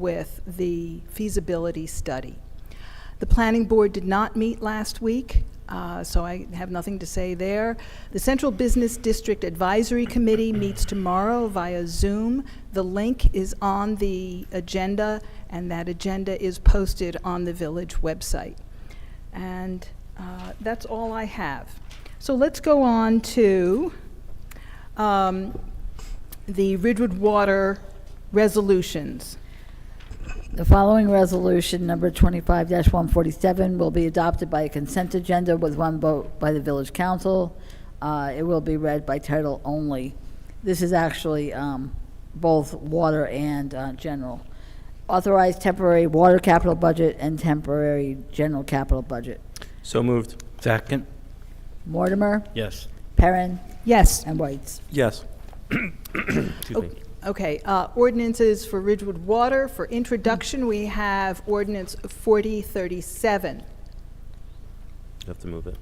with the feasibility study. The planning board did not meet last week, uh, so I have nothing to say there. The Central Business District Advisory Committee meets tomorrow via Zoom. The link is on the agenda, and that agenda is posted on the village website. And uh, that's all I have. So let's go on to um, the Ridgewood Water resolutions. The following resolution, number 25-147, will be adopted by a consent agenda with one vote by the village council. Uh, It will be read by title only. This is actually um, both water and uh, general. Authorize temporary water capital budget and temporary general capital budget. So moved. Second? Mortimer, Yes. Perrin, Yes. and Whites. Yes. Oh. Excuse me. Okay, uh, ordinances for Ridgewood Water, for introduction, we have ordinance 4037. You have to move it.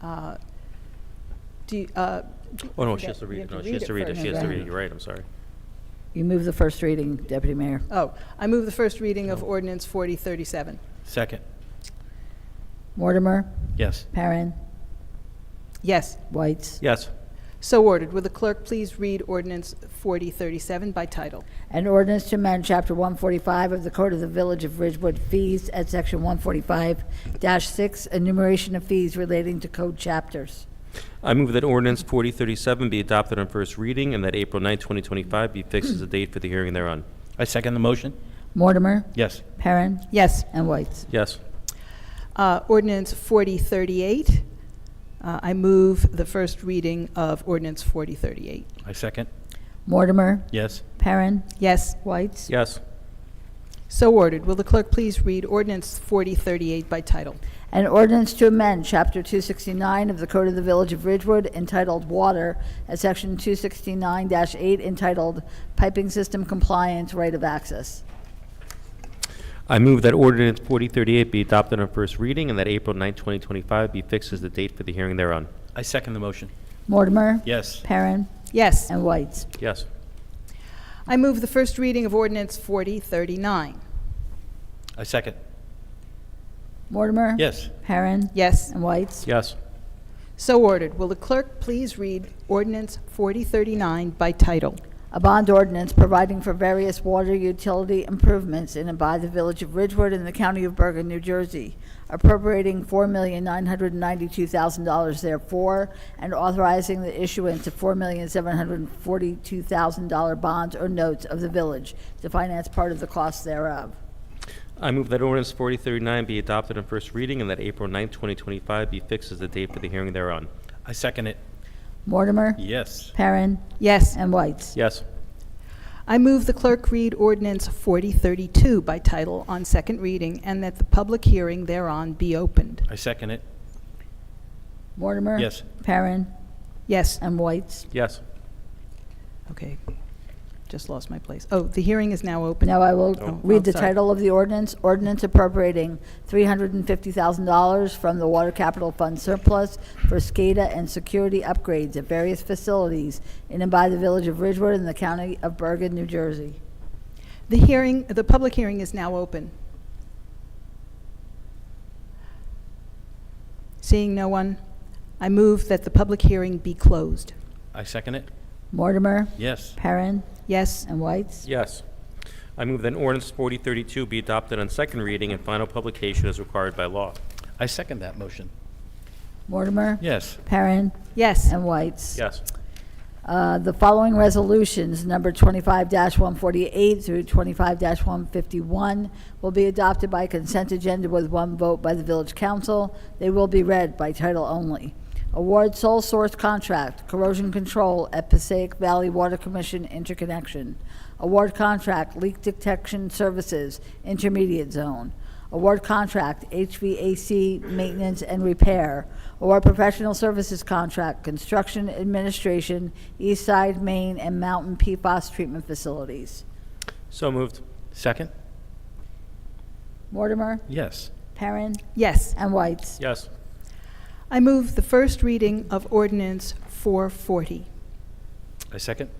Uh, Do, you- uh, Oh, no, You she has got- to you have read it. to No, read she has it to read it. first, She has to right? read it. You're right, I'm sorry. You move the first reading, Deputy Mayor. oh, I move the first reading of ordinance 4037. Second? Mortimer, Yes. Perrin, Yes, Whites. Yes. so ordered. Will the clerk please read ordinance 4037 by title? An ordinance to amend Chapter 145 of the Code of the Village of Ridgewood fees at Section 145-6, enumeration of fees relating to code chapters. I move that ordinance 4037 be adopted on first reading and that April 9, 2025 be fixed as the date for the hearing thereon. I second the motion? Mortimer, Yes. Perrin, Yes. and Whites. Yes. Uh, Ordinance 4038, Uh, I move the first reading of ordinance 4038. I second? Mortimer, Yes. Perrin, Yes, Whites. Yes. so ordered. Will the clerk please read ordinance 4038 by title? An ordinance to amend Chapter 269 of the Code of the Village of Ridgewood entitled Water at Section 269-8 entitled Piping System Compliance Right of Access. I move that ordinance 4038 be adopted on first reading and that April 9, 2025 be fixed as the date for the hearing thereon. I second the motion? Mortimer, Yes. Perrin, Yes, and Whites. Yes. I move the first reading of ordinance 4039. I second? Mortimer. Yes. Perrin. Yes, And Whites. Yes. so ordered. Will the clerk please read ordinance 4039 by title? A bond ordinance providing for various water utility improvements in and by the Village of Ridgewood and the County of Bergen, New Jersey, appropriating $4,992,000 therefore, and authorizing the issuance of $4,742,000 bonds or notes of the village to finance part of the cost thereof. I move that ordinance 4039 be adopted on first reading and that April 9, 2025 be fixed as the date for the hearing thereon. I second it? Mortimer, Yes. Perrin, Yes, and Whites. Yes. I move the clerk read ordinance 4032 by title on second reading and that the public hearing thereon be opened. I second it? Mortimer. Yes. Perrin, Yes, and Whites. Yes. okay, just lost my place. Oh, the hearing is now open. Now I will Oh, read the sorry. title of the ordinance, ordinance appropriating $350,000 from the Water Capital Fund surplus for SCADA and security upgrades at various facilities in and by the Village of Ridgewood and the County of Bergen, New Jersey. The hearing, the public hearing is now open. Seeing no one, I move that the public hearing be closed. I second it? Mortimer, Yes. Perrin, Yes, and Whites. Yes. I move that ordinance 4032 be adopted on second reading and final publication as required by law. I second that motion? Mortimer, Yes. Perrin, yes, and Whites. Yes. Uh, The following resolutions, number 25-148 through 25-151, will be adopted by consent agenda with one vote by the village council. They will be read by title only. Award sole source contract, corrosion control at Passaic Valley Water Commission interconnection. Award contract, leak detection services, intermediate zone. Award contract, HVAC maintenance and repair. Award professional services contract, construction administration, East Side, Maine, and Mountain PFAS treatment facilities. So moved. Second? Mortimer, Yes. Perrin, yes. and Whites. Yes. I move the first reading of ordinance 440. I second?